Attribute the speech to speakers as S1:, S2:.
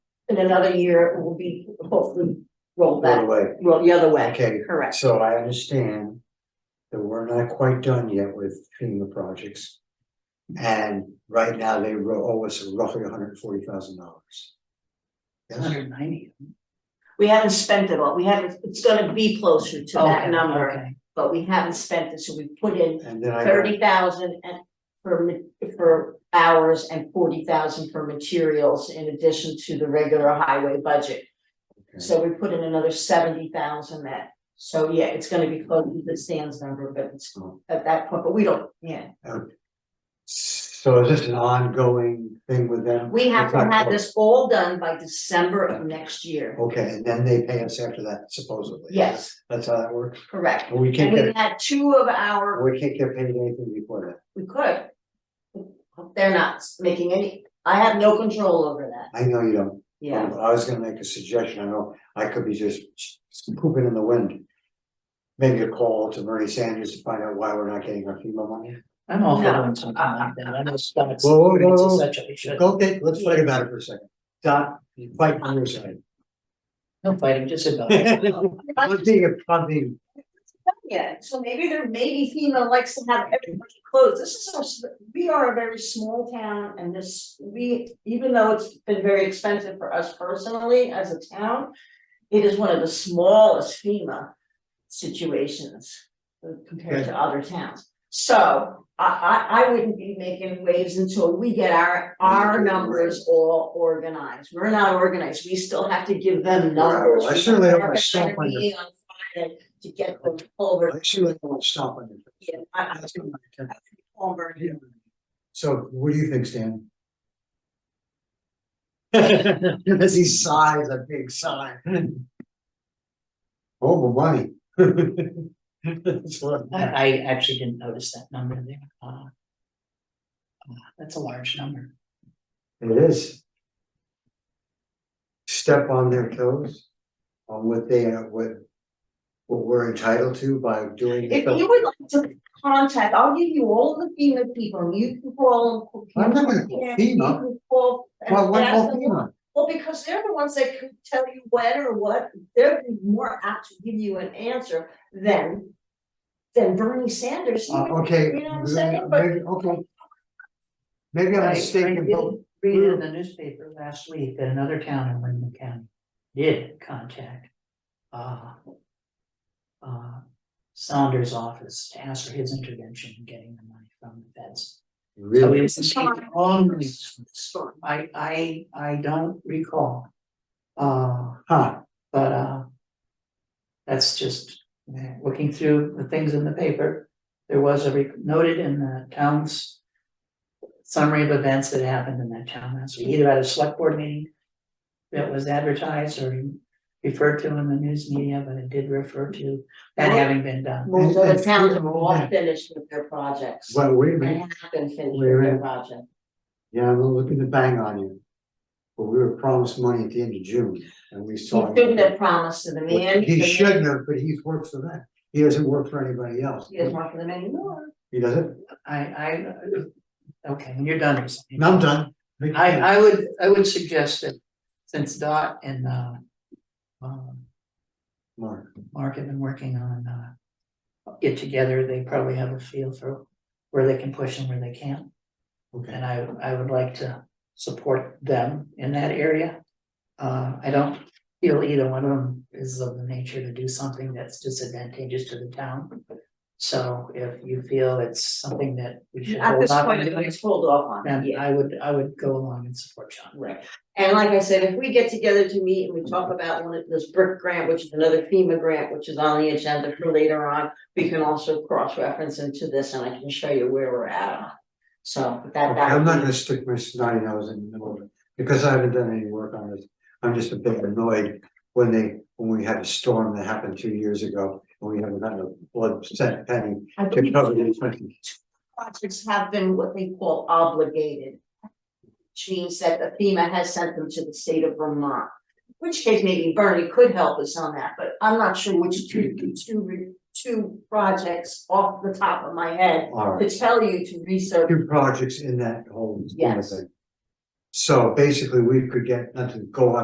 S1: in another year, it will be hopefully rolled
S2: By the
S1: back,
S2: way,
S1: rolled the other way.
S2: Okay.
S1: Correct.
S2: so I understand that we're not quite done yet with FEMA projects. And right now they ro- owe us roughly hundred and forty thousand dollars. Yes,
S3: Hundred ninety.
S1: We haven't spent it all. We haven't, it's gonna be closer to that number,
S3: Okay.
S1: but we haven't spent it, so we put in
S2: and then I. got-
S1: thirty thousand and for ma- for hours and forty thousand for materials in addition to the regular highway budget.
S2: Okay.
S1: So we put in another seventy thousand that, so yeah, it's gonna be close to the stands number, but it's
S2: Oh.
S1: at that point, but we don't, yeah.
S2: So is this an ongoing thing with them?
S1: We have to
S2: It's not
S1: have
S2: closed.
S1: this all done by December of next year.
S2: Okay, and then they pay us after that supposedly.
S1: Yes,
S2: That's how that works,
S1: correct.
S2: but we
S1: And
S2: can't
S1: we
S2: get,
S1: had two of our,
S2: we can't get paid anything before
S1: we could. They're not making any, I have no control over that,
S2: that, I know you don't.
S1: yeah.
S2: Um, I was gonna make a suggestion, I know, I could be just pooping in the wind. Maybe a call to Bernie Sanders to find out why we're not getting our FEMA money.
S3: I'm all for
S1: No.
S3: doing something like that. I know Scott's.
S2: Whoa, whoa,
S3: creates a
S2: whoa.
S3: Such a, should,
S2: Okay, let's fight about it for a second. Doc, you fight on your side.
S3: no fighting, just about. it.
S2: I'm being, I'm being,
S1: Yeah, so maybe there, maybe FEMA likes to have everybody closed, this is our, s- we are a very small town and this, we, even though it's been very expensive for us personally as a town. It is one of the smallest FEMA situations uh, compared to other towns. So I I I wouldn't be making waves until we get our our numbers all organized, we're not organized, we still have to give them numbers.
S2: Well, I certainly don't
S1: We're
S2: wanna stop
S1: gonna
S2: under-
S1: be on Friday to get them over,
S2: actually, I won't stop on it.
S1: yeah, I
S2: That's not my intent.
S1: I over.
S2: So what do you think, Stan? As he sighs, a big sigh. Oh, my money. That's what-
S3: I, I actually didn't notice that number there. Uh, uh, That's a large number.
S2: It is. Step on their toes on what they, are- what, what we're entitled to by doing. the
S1: If you would like to contact, I'll give you all the FEMA people, and you can call. them.
S2: I'm not gonna call
S1: Yeah,
S2: FEMA.
S1: you can Call. and
S2: Well, what
S1: ask
S2: all
S1: them
S2: FEMA?
S1: Well, because they're the ones that could tell you when or what, they're more apt to give you an answer than. Than Bernie Sanders,
S2: Uh,
S1: He-
S2: okay.
S1: You know what I'm saying? But-
S2: maybe- Okay. Maybe
S3: I- I
S2: I'm mistaken, but
S3: did Read in the newspaper last week that another town in Wyndham County did contact, uh, uh, Saunders' office to ask for his intervention in getting the money from the feds. So
S2: really,
S3: it's the only storm. I, I, I don't recall. Uh,
S2: huh,
S3: but, uh, that's just, eh, looking through the things in the paper, there was a, re- noted in the town's summary of events that happened in that town last week, either at a select board meeting that was advertised or referred to in the news media, but it did refer to that having been done.
S1: most of the
S2: it's
S1: towns are
S2: FEMA.
S1: all finished with their projects.
S2: well, wait a
S1: They
S2: minute,
S1: have been finished
S2: Wait a
S1: with their
S2: minute.
S1: project.
S2: yeah, I'm looking to bang on you. But we were promised money at the end of June, and we
S1: He
S2: saw.
S1: shouldn't have promised to the man.
S2: He
S1: the man-
S2: shouldn't have, but he's worked for them, he doesn't work for anybody else,
S1: He doesn't work for them anymore.
S2: he doesn't,
S3: I, I, okay, when you're done. or something.
S2: and I'm done.
S3: I, I would, I would suggest that since Dot and, uh, um,
S2: Mark,
S3: Mark have been working on, uh, get together, they probably have a feel for where they can push and where they can't.
S2: okay,
S3: And I, I would like to support them in that area. Uh, I don't feel either one of them is of the nature to do something that's disadvantageous to the town. So if you feel it's something that we should
S1: At
S3: hold
S1: this
S3: off
S1: point,
S3: on
S1: I'm
S3: doing,
S1: just hold off on it,
S3: then
S1: yeah.
S3: I would, I would go along and support John.
S1: Right, and like I said, if we get together to meet and we
S3: Mm-hmm.
S1: talk about one of this brick grant, which is another FEMA grant, which is on the agenda for later on. We can also cross-reference into this and I can show you where we're at on. it. So that
S2: Okay,
S1: that.
S2: I'm
S1: would
S2: not
S1: be-
S2: gonna stick my snotty nose in the middle of it, because I haven't done any work on this, I'm just a bit annoyed. When they, when we had a storm that happened two years ago, and we haven't gotten a blood cent penny
S1: I
S2: to
S1: believe
S2: cover the
S1: two
S2: expenses.
S1: Projects have been what they call obligated. Which means that the FEMA has sent them to the state of Vermont. Which case maybe Bernie could help us on that, but I'm not sure which two, two, two projects off the top of my head.
S2: All right,
S1: To tell you to research
S2: two projects in that whole. scheme of
S1: Yes.
S2: thing. So basically, we could get, not to go on